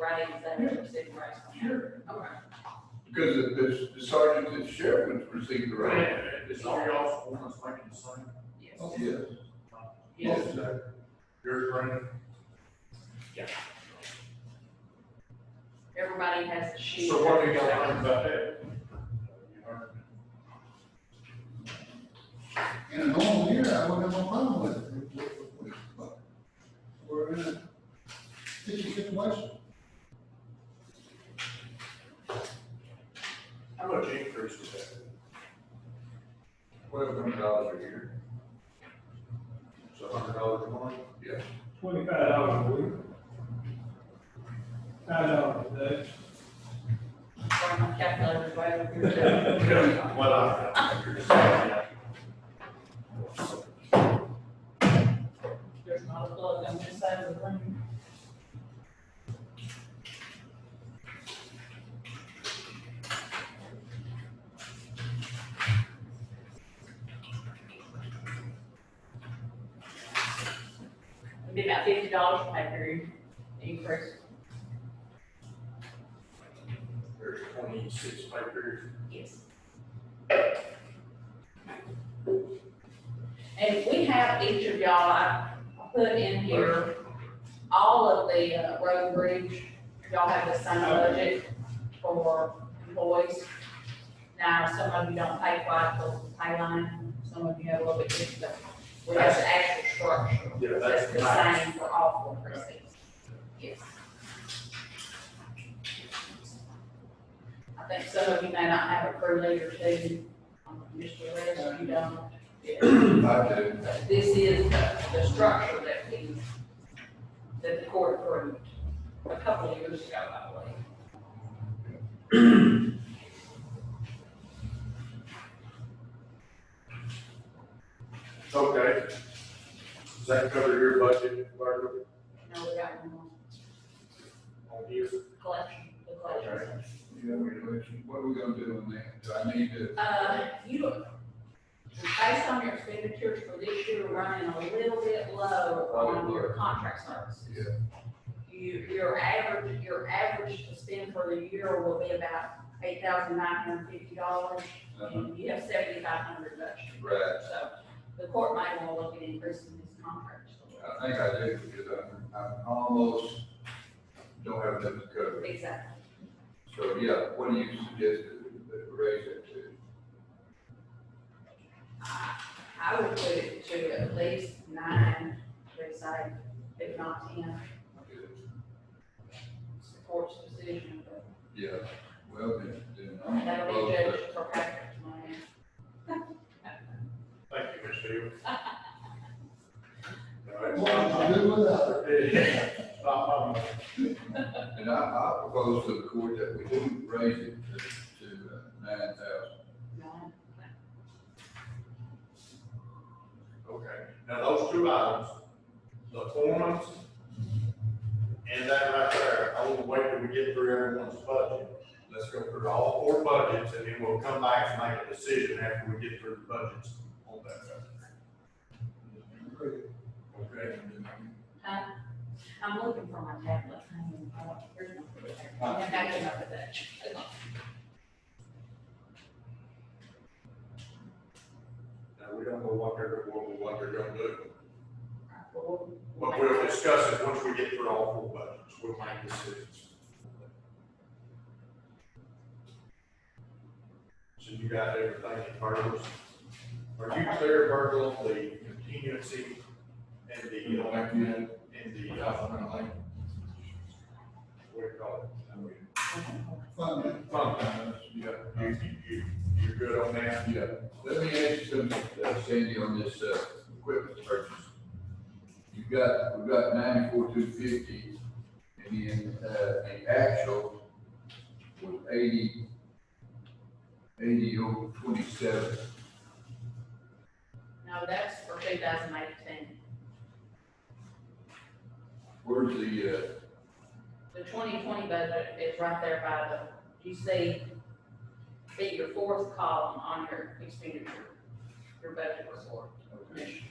rights, that are civil rights. Sure. Okay. Because the- the the sergeant and sheriff would receive the right. It's all y'all's performance ranking the same. Yes. Oh, Yes. Yes. sir. Yours, Brandon? Everybody has to shoot. So what do y'all learn about that? In a normal year, I wouldn't have a problem with it, with- with- with- but we're in a sticky situation. How much increase was that? Twelve hundred dollars a year. So a hundred dollars a month? Yeah. twenty-five dollars a week. Five dollars a day. Or my calculator's right over here. Well, I. There's not a plug on this side of the room. It'd be about fifty dollars for that period, increase. There's twenty-six papers. Yes. And we have each of y'all, I put in here, all of the uh, road and bridge, y'all have the same budget for employees. Now, some of you don't pay quite the pay line, some of you have a little bit different, but we have the actual structure. Yeah, That's that's the nice. same for all four precincts. Yes. I think some of you may not have a crew leader too, um, Mr. Reyes, you don't. Yeah. I do. But This is the, the structure that we, that the court approved a couple of years ago, I believe. Okay. Does that cover your budget, Barbara, Now we got one more on here? collection, the collection. Yeah, we do. What are we gonna do on that? Do I need to? Uh, you, based on your expenditures for this year, we're running a little bit low on your contract services. Yeah. You, your average, your average to spend for the year will be about eight thousand nine hundred fifty dollars, Uh-huh. and you have seventy-five hundred budgeted. Right. So the court might want to look at increasing this contract. I think I do, because I'm, I'm almost, don't have enough to cover. Exactly. So, yeah, what do you suggest that that we raise it to? I, I would put it to at least nine, per side, if not ten, supports decision, but Yeah, well, then, then I'm. gonna That'll be propose judged that- for practice money. Thank you, Ms. Hill. All right. What would you do without it? Bob, um, And I, I propose to the court that we do raise it to, to nine thousand. No. Okay, now those two items, the forms and that right there, I want to wait till we get through everyone's budget. Let's go through all four budgets and then we'll come back and make a decision after we get through the budgets on that. Okay, I'm looking for my tablet. I mean, I don't- here's my computer. I think I came up with that. now we don't know what they're, what, what they're gonna do, Well, but we'll discuss it once we get through all four budgets, we'll make decisions. So you got everything in Virgil's? Are you clear, Virgil, on the contingency and You the, know, uh, like, you know, and you the, know, uh, I like, what do you call it? I mean, Fund it. sometimes, yeah, You, you, you, you're good on that? yeah. Let me ask you something, uh, Sandy, on this, uh, equipment purchase. You've got, we've got ninety-four, two fifty, and then, uh, the actual was eighty, eighty oh twenty-seven. No, that's for two thousand eighteen. Where's the, uh, The twenty twenty budget is right there by the, you see, see your fourth column on your expenditure, your budget report. Okay.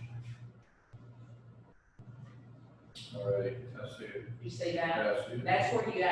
All right, I see it, You see that? I see it. That's where you